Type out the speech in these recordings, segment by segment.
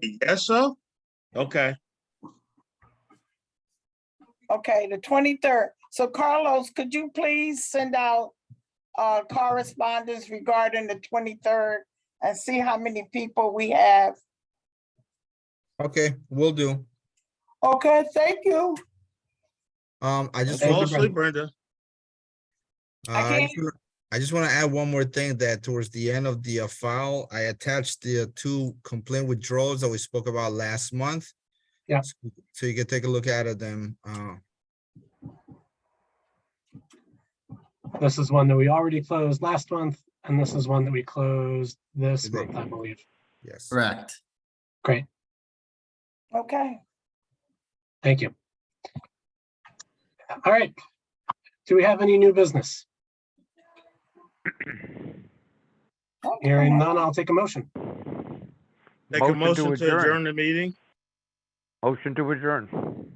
You guess so? Okay, Okay, the twenty-third. So Carlos, could you please send out uh correspondence regarding the twenty-third and see how many people we have? Okay, will do. Okay, thank you. Um, I just. fall want to- asleep, Brenda. uh, I I can't- just wanna- I just want to add one more thing that towards the end of the uh, file, I attached the uh, two complaint withdrawals that we spoke about last month. Yeah. So- So you can take a look at them. Uh, This is one that we already closed last month, and this is one that we closed this Today. month, I believe. yes. Correct. Great, Okay, thank you. All right. Do we have any new business? Hearing none, I'll take a motion. Make a Motion to motion to adjourn. adjourn the meeting. Motion to adjourn.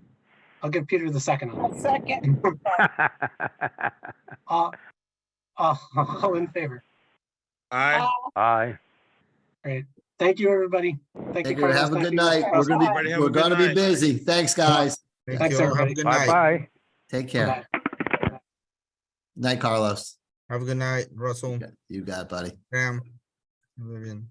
I'll give Peter the second. a on second. it. Uh, uh, All in favor. Aye. Aye. Thank you, everybody. Thank you. Thank you. Carlos. Have a Thank good you, night. We're Carlos. gonna Everybody be, have a we're good gonna be night. busy. Thanks, guys. Thank Thanks, you. all. Have a everybody. good night. Bye-bye. Take Bye-bye. care. Night, Carlos. Have a good night, Russell, You got it, buddy. Sam, Vivian.